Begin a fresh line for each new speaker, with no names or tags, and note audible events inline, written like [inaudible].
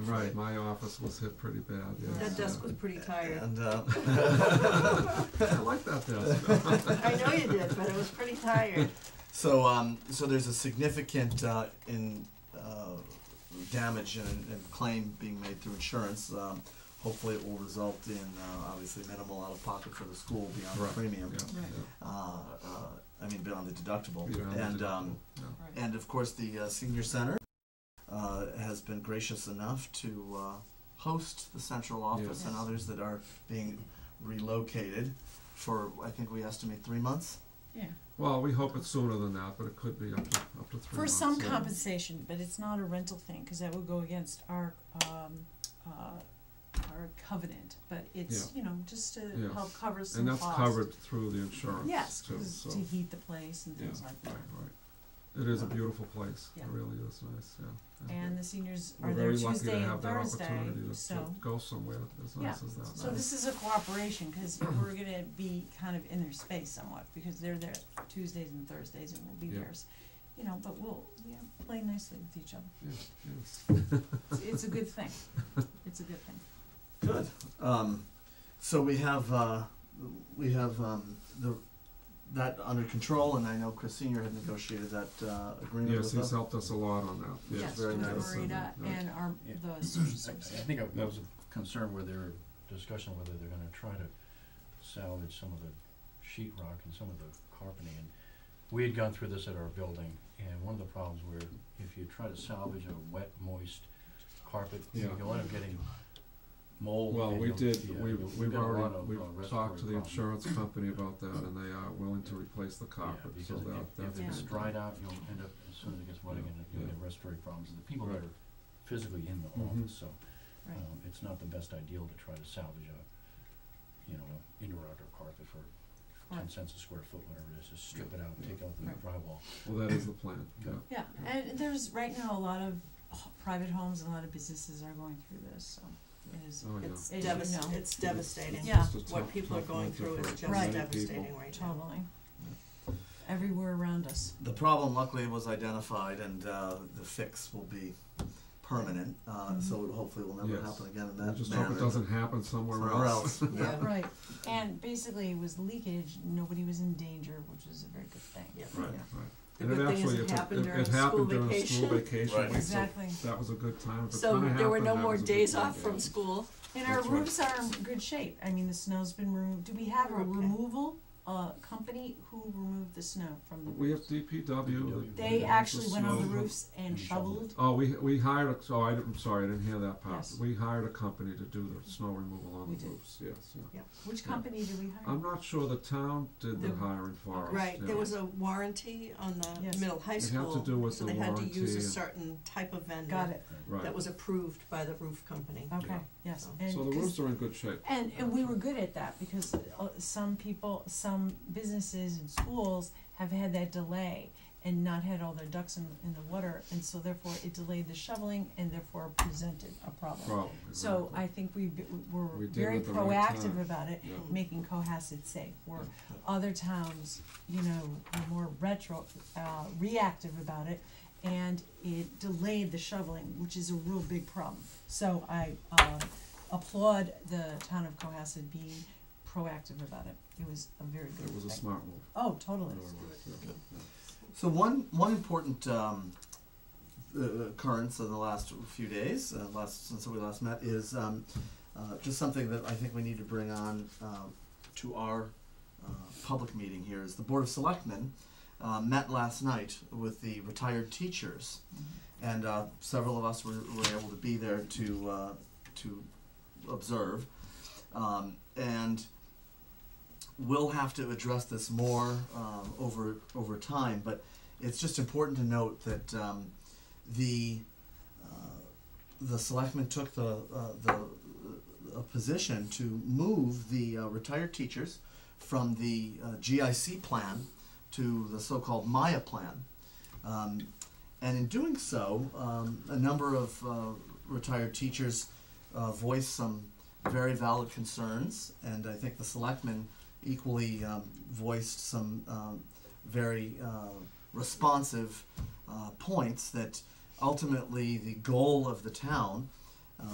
Right, my office was hit pretty bad, yes.
That desk
yeah.
was pretty tired.
And, uh,
I like that desk.
I know you did, but it was pretty tired.
[laughs] so, um, so there's a significant, uh, in, uh, damage and, and claim being made through insurance. Um, hopefully it will result in, uh, obviously minimal out-of-pocket for the school beyond the
Right,
premium.
yeah,
Right.
yeah.
Uh, uh, I mean, beyond the deductible.
You don't have to
And,
do that,
um,
yeah.
And of course, the uh, senior center uh, has been gracious enough to uh, host the central office
Yes.
and others that are being relocated for I think we estimate three months.
Yeah,
Well, we hope it's sooner than that, but it could be up to, up to three
for
months.
some
yeah.
compensation, but it's not a rental thing, cause that would go against our, um, uh, our covenant, but it's, you know, just to
Yeah.
help cover some
And that's
costs.
covered through the insurance
Yes,
too,
'cause
so.
to heat the place and
Yeah,
things like
right,
that.
right. It is a beautiful place, it
Yeah.
really is nice, yeah.
And the seniors
We're
are there
very lucky to
Tuesday and
have that
Thursday,
opportunity to- To
so,
go somewhere as
Yeah.
nice as that.
so this is a cooperation, cause we're gonna be kind of in their space somewhat, because they're there Tuesdays and Thursdays and we'll be
Yeah.
theirs. You know, but we'll, yeah, play nicely with each other.
Yeah, yes.
It's, it's a good thing.
[laughs]
It's a good thing.
Good. Um, so we have uh, we have um, the that under control, and I know Chris Senior had negotiated that uh, agreement
Yes,
with
he's
us.
helped us a lot on that,
Yeah,
yes,
Yes,
very
with
nice.
nice. and,
Marita
uh,
and our,
Yeah.
the social
[laughs] I I
services.
think I
Yeah.
was concerned with their discussion whether they're gonna try to salvage some of the sheet rock and some of the carpeting. And we had gone through this at our building, and one of the problems where if you try to salvage a wet, moist carpet,
Yeah.
you'll end up getting mold.
Well,
and
we
you'll- yeah,
did, we've,
you'll-
we've
got a lot
already,
of,
we've
uh,
talked
respiratory
to the
problems.
insurance company about that, and they are willing to replace the carpet, so
Yeah,
that,
because
that's.
if, if it's
good.
dried out, you'll end up, as soon as it gets wet
Yeah,
again, you'll
yeah.
get respiratory problems, and the people that
Right.
are physically in the
Mhm.
office, so.
Right.
Um, it's not the best ideal to try to salvage a, you know, a indoor outdoor carpet for ten
Right.
cents a square foot, whatever it is, just strip it out and take out the
Right.
drywall.
Well, that is the plan, yeah.
Yeah, and there's right now a lot of h- private homes and a lot of businesses are going through this, so it is
Oh, yeah.
It's
As you
devastating,
know.
it's devastating.
Yeah.
It's just a
What
tough-
people are
tough
going
winter
through
for
is
many
just
Right.
devastating
people.
right now.
totally everywhere around us.
The problem luckily was identified and uh, the fix will be permanent, uh, so it hopefully will never
Mm-hmm. Yes.
happen again in that
We
manner.
just hope it doesn't happen somewhere
Somewhere
else.
else, yeah.
Right, and basically it was leakage, nobody was in danger, which is a very good thing.
Yeah.
Right, right.
Yeah.
The
And it
good thing is
actually,
it
it's a-
happened
it-
during
it happened
school
during a school
vacation.
vacation
Right.
week, so
Exactly.
that was a good time. If it
So
kinda
there were
happened,
no
that
more
was a good
days
time.
off from school.
And our
That's right.
roofs are in good shape, I mean, the snow's been removed, do we have a
Okay.
removal, uh, company who removed the snow from the roofs?
We have DPW. that-
They
that
actually
the
went on the
snow-
roofs and
and shoveled
shoveled,
Oh, we, we hired, a- oh, I, am sorry, I didn't hear that part.
Yes.
We hired a company to do the snow removal on
We
the
did.
roofs, yes, yeah.
which
Yeah.
company do we hire?
I'm not sure the town did the
The-
hiring for us.
Right,
yeah.
there was a warranty on the
Yes.
middle high
It had to
school,
do with
so
the
they had to use
warranty
a
and-
certain type of
Got
vendor
it,
Right,
that was approved by the roof company.
okay,
Yeah.
yes,
So-
and
so the
'cause-
roofs are in good shape.
And, and we were good at that because uh, some people, some businesses and schools have had that delay and not had all their ducks in, in the water, and so therefore it delayed the shoveling and therefore presented a problem.
Problem,
So I
exactly.
think we b- were
We did
very
it at the right
proactive
time.
about it,
Yeah.
making Cohasset safe, where other towns, you know, were more retro, uh, reactive about it, and it delayed the shoveling, which is a real big problem. So I, uh, applaud the town of Cohasset being proactive about it, it was a very good
It was a
thing.
smart move.
Oh, totally,
Really was, yeah, yeah.
So one one important um, uh, occurrence of the last few days, uh, last since we last met, is um, uh, just something that I think we need to bring on uh, to our uh, public meeting here is the Board of Selectmen uh, met last night with the retired teachers, and uh, several of us were, were able to be there to uh, to observe, um, and we'll have to address this more um, over over time. But it's just important to note that um, the uh, the selectmen took the uh, the uh, a position to move the uh, retired teachers from the uh, GIC plan to the so-called Maya plan. Um, and in doing so, um, a number of uh, retired teachers uh, voiced some very valid concerns, and I think the selectmen equally um, voiced some um, very uh, responsive uh, points that ultimately the goal of the town